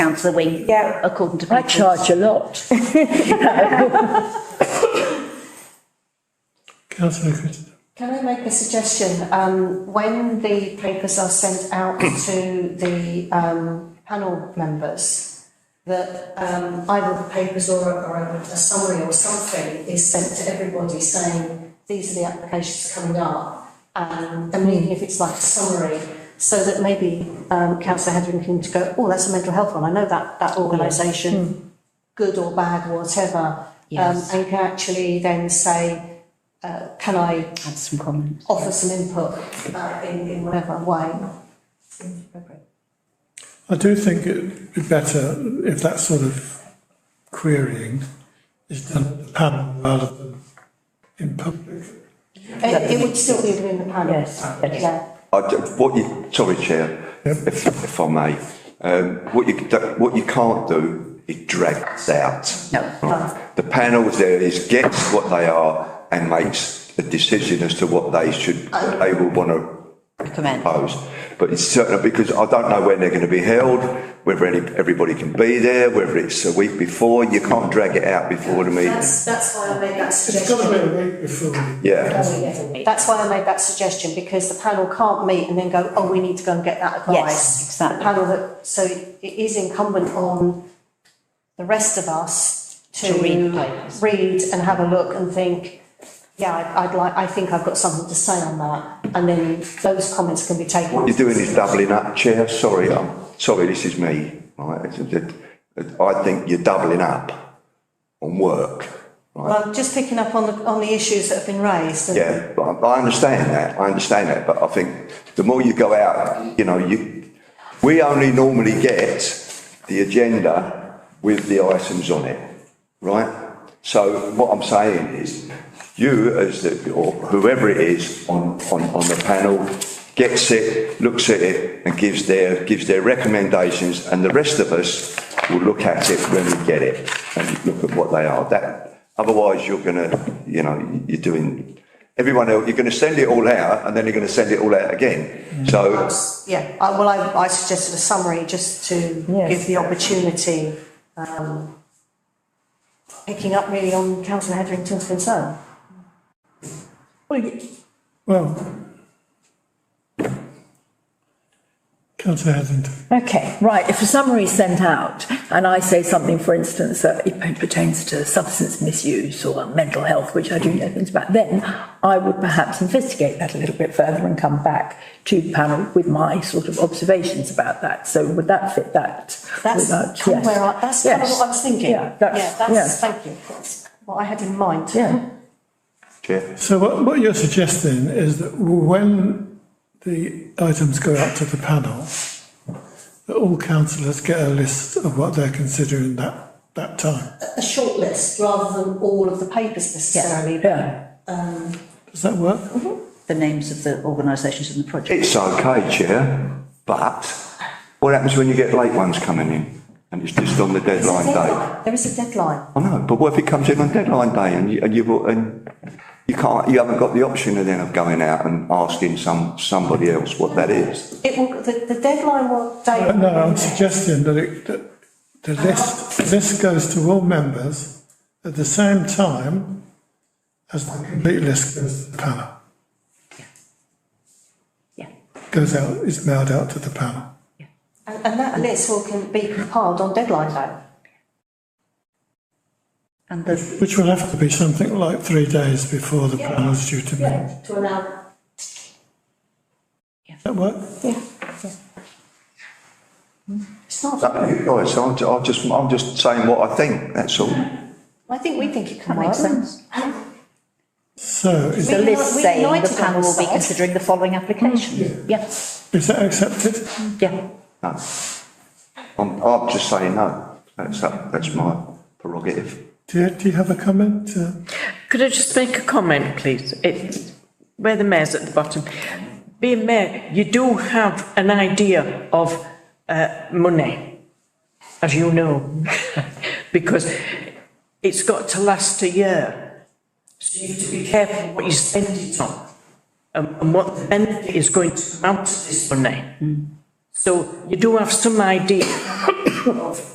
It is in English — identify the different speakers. Speaker 1: pound for the week.
Speaker 2: Yeah.
Speaker 1: According to.
Speaker 3: I
Speaker 1: people's-
Speaker 3: charge a lot.
Speaker 4: Councillor Crittenden.
Speaker 5: Can I make a suggestion? Um, when the papers are sent out to the, um, panel members, that, um, either the papers or, a- or a a summary or something is sent to everybody saying, these are the applications coming up. Um, I mean, if it's like a summary, so that maybe, um, councillor Hetherington can go, oh, that's a mental health one, I know that, that organisation, good or bad, whatever. Um,
Speaker 1: Yes.
Speaker 5: and can actually then say, uh, can I
Speaker 1: Have some comments.
Speaker 5: offer some input uh, in, in whatever way.
Speaker 4: I do think it'd be better if that sort of querying is done at the panel rather than in public.
Speaker 5: It, it would still be within the panel.
Speaker 3: Yes, yes.
Speaker 5: Yeah.
Speaker 6: I d what you, sorry, Chair, if, if I may, um, what you, do- what you can't do is drag this out.
Speaker 1: No.
Speaker 6: Right. The panel there is gets what they are and makes a decision as to what they should, what they will want to
Speaker 1: Recommend.
Speaker 6: proposed. But it's certain, because I don't know when they're going to be held, whether any, everybody can be there, whether it's a week before, you can't drag it out before the meeting.
Speaker 5: That's, that's why I made that
Speaker 4: It's got to
Speaker 5: suggestion.
Speaker 4: be a week before.
Speaker 6: Yeah,
Speaker 5: That's why I made that suggestion, because the panel can't meet and then go, oh, we need to go and get that advice.
Speaker 1: Yes, exactly.
Speaker 5: The panel that, so it is incumbent on the rest of us to.
Speaker 1: To read the papers.
Speaker 5: read and have a look and think, yeah, I- I'd like, I think I've got something to say on that, and then those comments can be taken.
Speaker 6: what you're doing is doubling up, Chair, sorry, I'm, sorry, this is me, right? It's a- it- I think you're doubling up on work, right?
Speaker 5: Well, just picking up on the, on the issues that have been raised. and-
Speaker 6: Yeah, but I I understand that, I understand that, but I think the more you go out, you know, you, we only normally get the agenda with the items on it, right? So what I'm saying is, you as the, or whoever it is on, on, on the panel, gets it, looks at it and gives their, gives their recommendations and the rest of us will look at it when we get it and look at what they are. That, otherwise you're gonna, you know, you're doing, everyone else, you're gonna send it all out and then you're gonna send it all out again. So
Speaker 5: Yeah, I, well, I, I suggested a summary just to
Speaker 3: Yes.
Speaker 5: give the opportunity, um, picking up really on councillor Hetherington's concern.
Speaker 3: Well, y-
Speaker 4: Well. Councillor Hetherington.
Speaker 3: Okay, right, if a summary is sent out and I say something, for instance, that it pertains to substance misuse or mental health, which I do know things about, then I would perhaps investigate that a little bit further and come back to panel with my sort of observations about that. So would that fit that?
Speaker 5: That's
Speaker 3: without-
Speaker 5: kind of
Speaker 3: yes.
Speaker 5: where I, that's kind of
Speaker 3: Yes.
Speaker 5: what I was thinking.
Speaker 3: Yeah, that's-
Speaker 5: Yeah, that's,
Speaker 3: yeah.
Speaker 5: thank you, that's what I had in mind.
Speaker 3: Yeah,
Speaker 6: Chair,
Speaker 4: So what, what you're suggesting is that when the items go out to the panel, that all councillors get a list of what they're considering that, that time.
Speaker 5: A short list rather than all of the papers necessarily, but
Speaker 3: yeah.
Speaker 4: Does that work?
Speaker 1: The names of the organisations and the project.
Speaker 6: it's okay, Chair, but what happens when you get late ones coming in? And it's just on the deadline day?
Speaker 5: there is a deadline.
Speaker 6: I know, but what if it comes in on deadline day and you, and you, and you can't, you haven't got the option of then of going out and asking some, somebody else what that is?
Speaker 5: It will, the, the deadline will, date.
Speaker 4: But no, I'm suggesting that it, that the list, the list goes to all members at the same time as the complete list goes to the panel,
Speaker 1: Yeah.
Speaker 4: goes out, is mailed out to the panel.
Speaker 5: and, and that list will can be compiled on deadline day.
Speaker 1: And the,
Speaker 4: Which will have to be something like three days before the panel's due to meet.
Speaker 5: To allow.
Speaker 4: That work?
Speaker 5: It's not.
Speaker 6: That, you guys, I'm, ju- I'm just, I'm just saying what I think, that's all.
Speaker 5: I think we think it can
Speaker 1: that
Speaker 5: work.
Speaker 1: makes sense.
Speaker 4: So is,
Speaker 1: The
Speaker 5: We
Speaker 1: list
Speaker 5: uni- we
Speaker 1: saying
Speaker 5: united
Speaker 1: the panel will be
Speaker 5: ourselves.
Speaker 1: considering the following
Speaker 3: Mm.
Speaker 1: applications. Yeah,
Speaker 4: is that accepted?
Speaker 1: yeah.
Speaker 6: No. I'm, I'm just saying no. That's, that- that's my prerogative.
Speaker 4: Do you, do you have a comment? Uh,
Speaker 7: Could I just make a comment, please? It's where the mayor's at the bottom. Being mayor, you do have an idea of uh, money, as you know, because it's got to last a year. So you have to be careful what you spend it on and, and what the benefit is going to come out of this money. So you do have some idea
Speaker 6: of